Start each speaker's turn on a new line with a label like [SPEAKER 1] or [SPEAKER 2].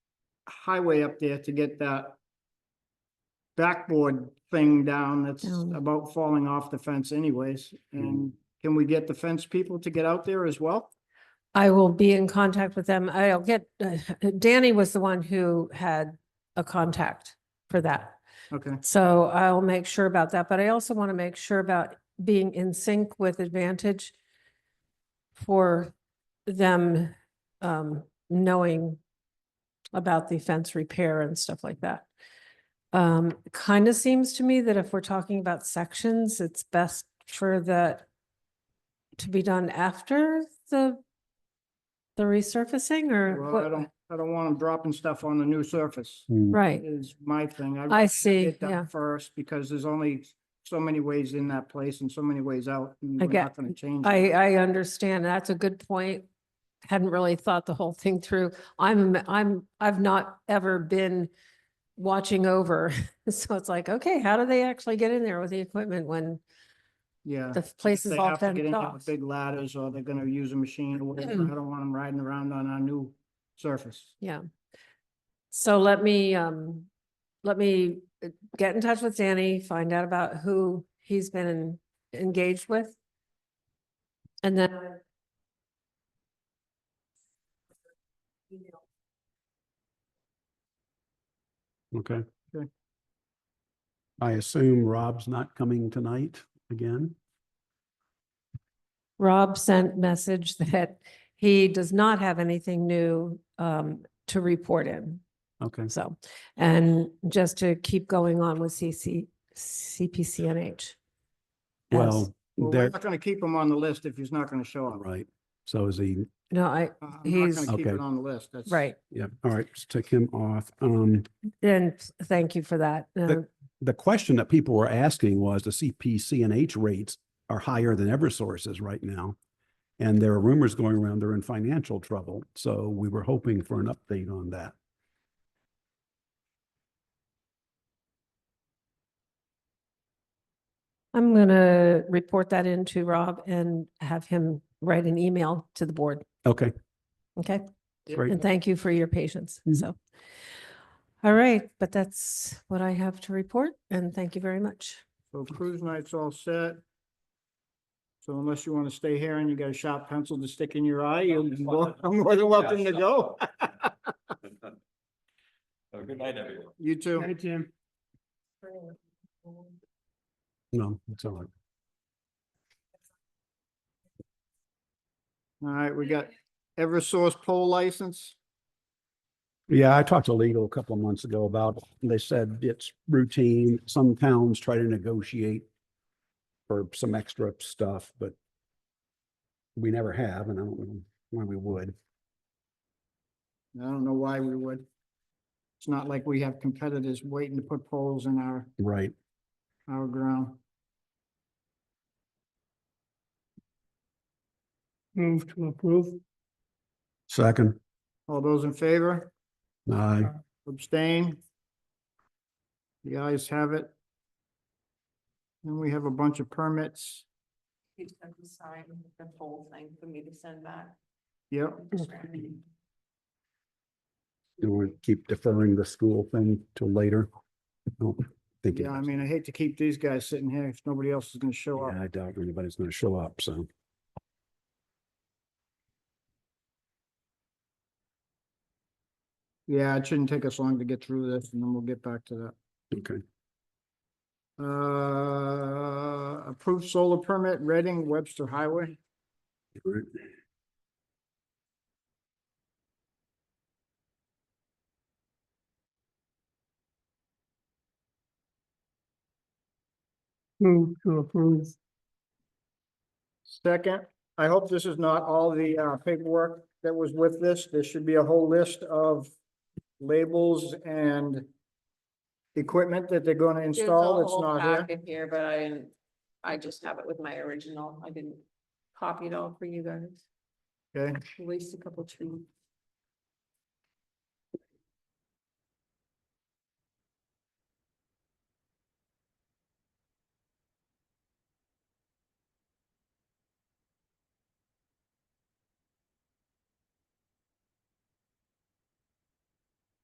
[SPEAKER 1] highway up there to get that backboard thing down that's
[SPEAKER 2] Down.
[SPEAKER 1] about falling off the fence anyways.
[SPEAKER 2] Hmm.
[SPEAKER 1] And can we get the fence people to get out there as well?
[SPEAKER 2] I will be in contact with them. I'll get, uh, Danny was the one who had a contact for that.
[SPEAKER 1] Okay,
[SPEAKER 2] So I'll make sure about that, but I also want to make sure about being in sync with Advantage for them um knowing about the fence repair and stuff like that. Um, kind of seems to me that if we're talking about sections, it's best for that to be done after the the resurfacing or
[SPEAKER 1] well, I
[SPEAKER 2] what?
[SPEAKER 1] don't, I don't want them dropping stuff on the new surface
[SPEAKER 2] Right,
[SPEAKER 1] is my thing. I'd
[SPEAKER 2] Hmm. I
[SPEAKER 1] rather
[SPEAKER 2] see,
[SPEAKER 1] get that
[SPEAKER 2] yeah.
[SPEAKER 1] First, because there's only so many ways in that place and so many ways out. and
[SPEAKER 2] I
[SPEAKER 1] we're
[SPEAKER 2] get-
[SPEAKER 1] not gonna change.
[SPEAKER 2] I,
[SPEAKER 1] it.
[SPEAKER 2] I understand. That's a good point. Hadn't really thought the whole thing through. I'm, I'm, I've not ever been watching over. So it's like, okay, how do they actually get in there with the equipment when
[SPEAKER 1] Yeah.
[SPEAKER 2] the place is
[SPEAKER 1] They
[SPEAKER 2] all
[SPEAKER 1] have to get
[SPEAKER 2] fenced
[SPEAKER 1] in there
[SPEAKER 2] off?
[SPEAKER 1] with big ladders or they're gonna use a machine or whatever. I don't want them riding around on our new surface.
[SPEAKER 2] So let me, um, let me uh, get in touch with Danny, find out about who he's been engaged with. And then.
[SPEAKER 3] Okay.
[SPEAKER 1] Okay.
[SPEAKER 3] I assume Rob's not coming tonight again?
[SPEAKER 2] Rob sent message that he does not have anything new um to report in.
[SPEAKER 3] Okay,
[SPEAKER 2] So, and just to keep going on with CC, CPCNH. Yes.
[SPEAKER 3] well,
[SPEAKER 1] Well, we're
[SPEAKER 3] there,
[SPEAKER 1] not gonna keep him on the list if he's not gonna show up.
[SPEAKER 3] right. So is he,
[SPEAKER 2] No, I,
[SPEAKER 1] Uh, I'm not
[SPEAKER 2] He's-
[SPEAKER 1] gonna keep
[SPEAKER 3] Okay.
[SPEAKER 1] it on the list. That's.
[SPEAKER 2] right,
[SPEAKER 3] yeah, all right, let's take him off. Um,
[SPEAKER 2] and thank you for that. Uh,
[SPEAKER 3] the question that people were asking was the CPC and H rates are higher than Eversource's right now. And there are rumors going around they're in financial trouble. So we were hoping for an update on that.
[SPEAKER 2] I'm gonna report that in to Rob and have him write an email to the board,
[SPEAKER 3] Okay,
[SPEAKER 2] okay?
[SPEAKER 3] great.
[SPEAKER 2] And thank you for your patience,
[SPEAKER 3] Mhm.
[SPEAKER 2] so. All right, but that's what I have to report, and thank you very much.
[SPEAKER 1] So cruise night's all set. So unless you wanna stay here and you got a sharp pencil to stick in your eye, you're more I'm more than welcome to go.
[SPEAKER 4] Have a good night, everyone.
[SPEAKER 1] You too.
[SPEAKER 3] Tim. No, it's all right.
[SPEAKER 1] All right, we got Eversource pole license.
[SPEAKER 3] Yeah, I talked to legal a couple of months ago about, it. they said it's routine. Some towns try to negotiate for some extra stuff, but we never have, and I don't know why we would.
[SPEAKER 1] I don't know why we would. It's not like we have competitors waiting to put poles in our,
[SPEAKER 3] Right.
[SPEAKER 1] our ground. Move to approve.
[SPEAKER 3] Second,
[SPEAKER 1] All those in favor?
[SPEAKER 3] aye.
[SPEAKER 1] Abstain? The ayes have it. Then we have a bunch of permits.
[SPEAKER 5] He's going to sign the whole thing for me to send back.
[SPEAKER 1] Yep,
[SPEAKER 3] Do we keep deferring the school thing till later? I don't think it
[SPEAKER 1] yeah, I
[SPEAKER 3] is.
[SPEAKER 1] mean, I hate to keep these guys sitting here if nobody else is gonna show
[SPEAKER 3] Yeah,
[SPEAKER 1] up.
[SPEAKER 3] I doubt anybody's gonna show up, so.
[SPEAKER 1] Yeah, it shouldn't take us long to get through this and then we'll get back to that.
[SPEAKER 3] Okay.
[SPEAKER 1] Uh, approved solar permit, Reading Webster Highway.
[SPEAKER 3] all right.
[SPEAKER 1] Move to approve. Second, I hope this is not all the uh, paperwork that was with this. There should be a whole list of labels and equipment that they're gonna install. It's not here.
[SPEAKER 5] In here, but I didn't, I just have it with my original. I didn't copy it all for you guys.
[SPEAKER 1] Okay,
[SPEAKER 5] At least a couple trees.